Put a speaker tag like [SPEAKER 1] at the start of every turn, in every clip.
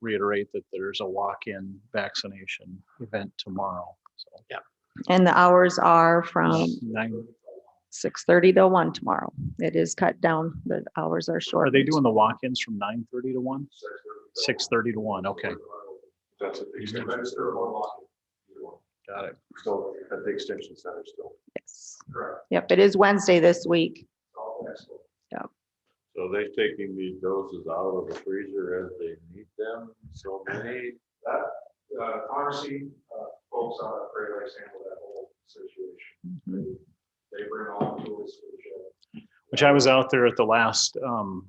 [SPEAKER 1] reiterate that there's a walk-in vaccination event tomorrow. So
[SPEAKER 2] And the hours are from
[SPEAKER 1] nine-
[SPEAKER 2] six thirty to one tomorrow. It is cut down. The hours are short.
[SPEAKER 1] Are they doing the walk-ins from nine thirty to one? Six thirty to one, okay.
[SPEAKER 3] That's at the extension center.
[SPEAKER 1] Got it.
[SPEAKER 3] Still at the extension center still.
[SPEAKER 2] Yes.
[SPEAKER 3] Correct.
[SPEAKER 2] Yep, it is Wednesday this week. Yeah.
[SPEAKER 3] So they taking these doses out of the freezer as they need them, so many? That, uh, pharmacy, uh, folks on the Great Lakes handle that whole situation.
[SPEAKER 2] Mhm.
[SPEAKER 3] They bring all the tools to the shed.
[SPEAKER 1] Which I was out there at the last um,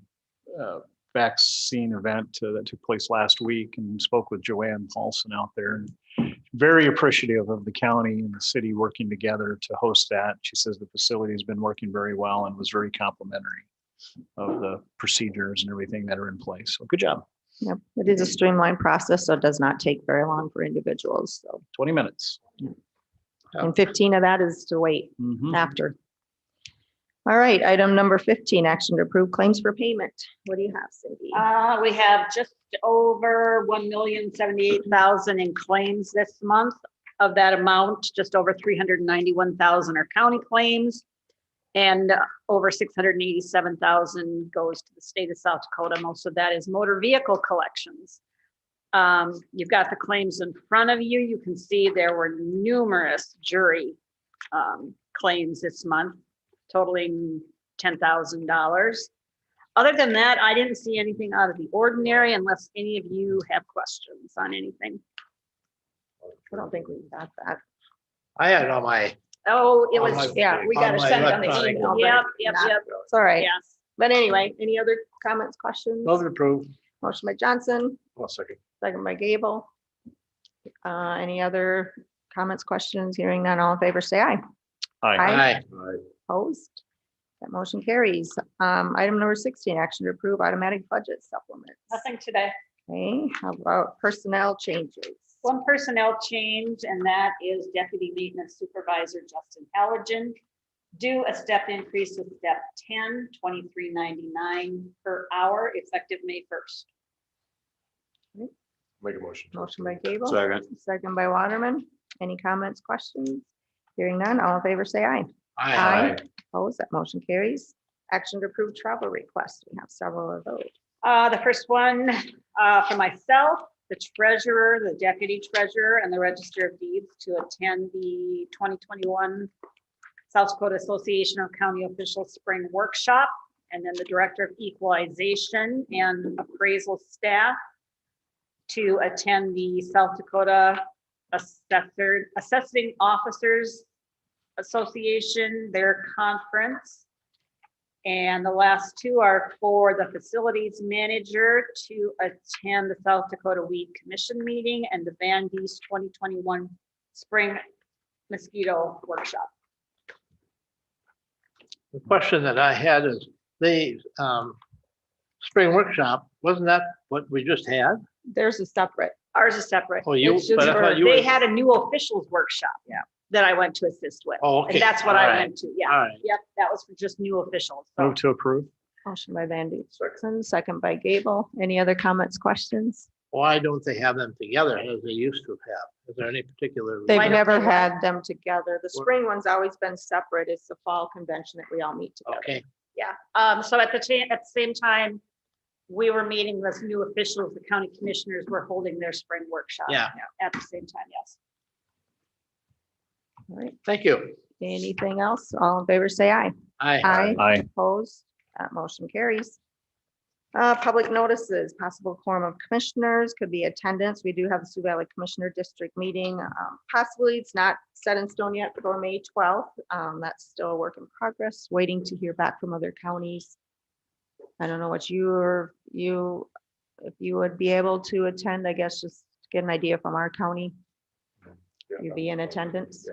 [SPEAKER 1] uh, vaccine event uh, that took place last week and spoke with Joanne Paulson out there. and Very appreciative of the county and the city working together to host that. She says the facility has been working very well and was very complimentary of the procedures and everything that are in place. So good job.
[SPEAKER 2] Yep, it is a streamlined process, so it does not take very long for individuals. So,
[SPEAKER 1] Twenty minutes.
[SPEAKER 2] and fifteen of that is to wait
[SPEAKER 1] Mhm.
[SPEAKER 2] after. All right, item number fifteen, action to approve claims for payment. What do you have, Cindy?
[SPEAKER 4] Uh, we have just over one million seventy-eight thousand in claims this month. Of that amount, just over three hundred and ninety-one thousand are county claims. And uh, over six hundred and eighty-seven thousand goes to the state of South Dakota. Most of that is motor vehicle collections. Um, you've got the claims in front of you. You can see there were numerous jury um, claims this month totaling ten thousand dollars. Other than that, I didn't see anything out of the ordinary unless any of you have questions on anything.
[SPEAKER 2] I don't think we got that.
[SPEAKER 5] I had it on my,
[SPEAKER 4] Oh, it
[SPEAKER 5] On
[SPEAKER 4] was,
[SPEAKER 5] my-
[SPEAKER 2] Yeah, we got to
[SPEAKER 5] on my
[SPEAKER 2] send on the
[SPEAKER 5] electronic
[SPEAKER 2] email.
[SPEAKER 5] one.
[SPEAKER 2] but
[SPEAKER 4] yep, yep,
[SPEAKER 2] not-
[SPEAKER 4] yep,
[SPEAKER 2] It's all right.
[SPEAKER 4] yes.
[SPEAKER 2] But anyway, any other comments, questions?
[SPEAKER 5] love to approve.
[SPEAKER 2] Motion by Johnson,
[SPEAKER 1] One second.
[SPEAKER 2] second by Gable. Uh, any other comments, questions? Hearing none, all in favor, say aye.
[SPEAKER 1] Hi.
[SPEAKER 2] Aye.
[SPEAKER 5] Aye.
[SPEAKER 2] Opposed? That motion carries. Um, item number sixteen, action to approve automatic budget supplements.
[SPEAKER 4] Nothing today.
[SPEAKER 2] Okay, how about personnel changes?
[SPEAKER 4] One personnel change, and that is Deputy Maintenance Supervisor Justin Halligan. Do a step increase of step 10, 23.99 per hour effective May first.
[SPEAKER 3] Make a motion.
[SPEAKER 2] Motion by Gable.
[SPEAKER 3] Second.
[SPEAKER 2] Second by Waterman. Any comments, questions? Hearing none, all in favor, say aye.
[SPEAKER 5] Aye.
[SPEAKER 2] Opposed? That motion carries. Action to approve travel requests. We have several of those.
[SPEAKER 4] Uh, the first one, uh, for myself, the treasurer, the deputy treasurer, and the register of deeds to attend the twenty twenty-one South Dakota Association of County Officials Spring Workshop, and then the Director of Equalization and Appraisal Staff to attend the South Dakota Assessor, Assessing Officers Association, their conference. And the last two are for the facilities manager to attend the South Dakota Weed Commission meeting and the Van Dees twenty twenty-one spring mosquito workshop.
[SPEAKER 5] The question that I had is, the um, spring workshop, wasn't that what we just had?
[SPEAKER 2] There's a separate.
[SPEAKER 4] Ours is separate.
[SPEAKER 5] Oh, you-
[SPEAKER 4] It's just
[SPEAKER 5] but I
[SPEAKER 4] for-
[SPEAKER 5] thought you
[SPEAKER 4] They
[SPEAKER 5] were-
[SPEAKER 4] had a new officials workshop.
[SPEAKER 2] Yeah.
[SPEAKER 4] That I went to assist with.
[SPEAKER 5] Oh, okay.
[SPEAKER 4] And that's what
[SPEAKER 5] All
[SPEAKER 4] I
[SPEAKER 5] right.
[SPEAKER 4] went to. Yeah.
[SPEAKER 5] All right.
[SPEAKER 4] Yep. That was for just new officials. so.
[SPEAKER 1] Move to approve.
[SPEAKER 2] Motion by Van Duzen, second by Gable. Any other comments, questions?
[SPEAKER 5] Why don't they have them together as they used to have? Is there any particular?
[SPEAKER 2] They've
[SPEAKER 4] Why
[SPEAKER 5] reason?
[SPEAKER 4] don't
[SPEAKER 2] never
[SPEAKER 4] they have-
[SPEAKER 2] had them together. The
[SPEAKER 5] What-
[SPEAKER 2] spring one's always been separate. It's the fall convention that we all meet together.
[SPEAKER 5] Okay,
[SPEAKER 4] Yeah, um, so at the ta- at the same time, we were meeting with new officials, the county commissioners were holding their spring workshop.
[SPEAKER 5] Yeah.
[SPEAKER 4] At the same time, yes.
[SPEAKER 2] All right.
[SPEAKER 5] thank you.
[SPEAKER 2] Anything else? All in favor, say aye.
[SPEAKER 5] Aye.
[SPEAKER 2] Aye.
[SPEAKER 1] Aye.
[SPEAKER 2] Opposed? That motion carries. Uh, public notices, possible quorum of commissioners, could be attendance. We do have the Sioux Valley Commissioner District meeting. Um, Possibly, it's not set in stone yet for May twelfth. Um, that's still a work in progress, waiting to hear back from other counties. I don't know what your, you, if you would be able to attend, I guess, just get an idea from our county. You'd be in attendance.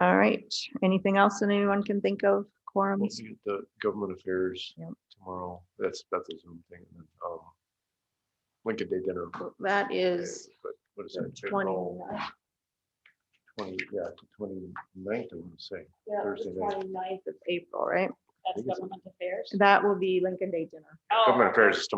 [SPEAKER 2] All right, anything else that anyone can think of,
[SPEAKER 3] We'll
[SPEAKER 2] quorums?
[SPEAKER 3] see at the government affairs
[SPEAKER 2] Yep.
[SPEAKER 3] tomorrow. That's, that's a Zoom thing. and then, um, Lincoln Day dinner.
[SPEAKER 2] That is
[SPEAKER 3] But What is that?
[SPEAKER 2] twenty.
[SPEAKER 3] April 20 yeah, twenty ninth, I want to say.
[SPEAKER 4] Yeah,
[SPEAKER 3] the Thursday night.
[SPEAKER 2] ninth of April, right?
[SPEAKER 4] That's government affairs.
[SPEAKER 2] That will be Lincoln Day dinner.
[SPEAKER 4] Oh,
[SPEAKER 3] Government affairs is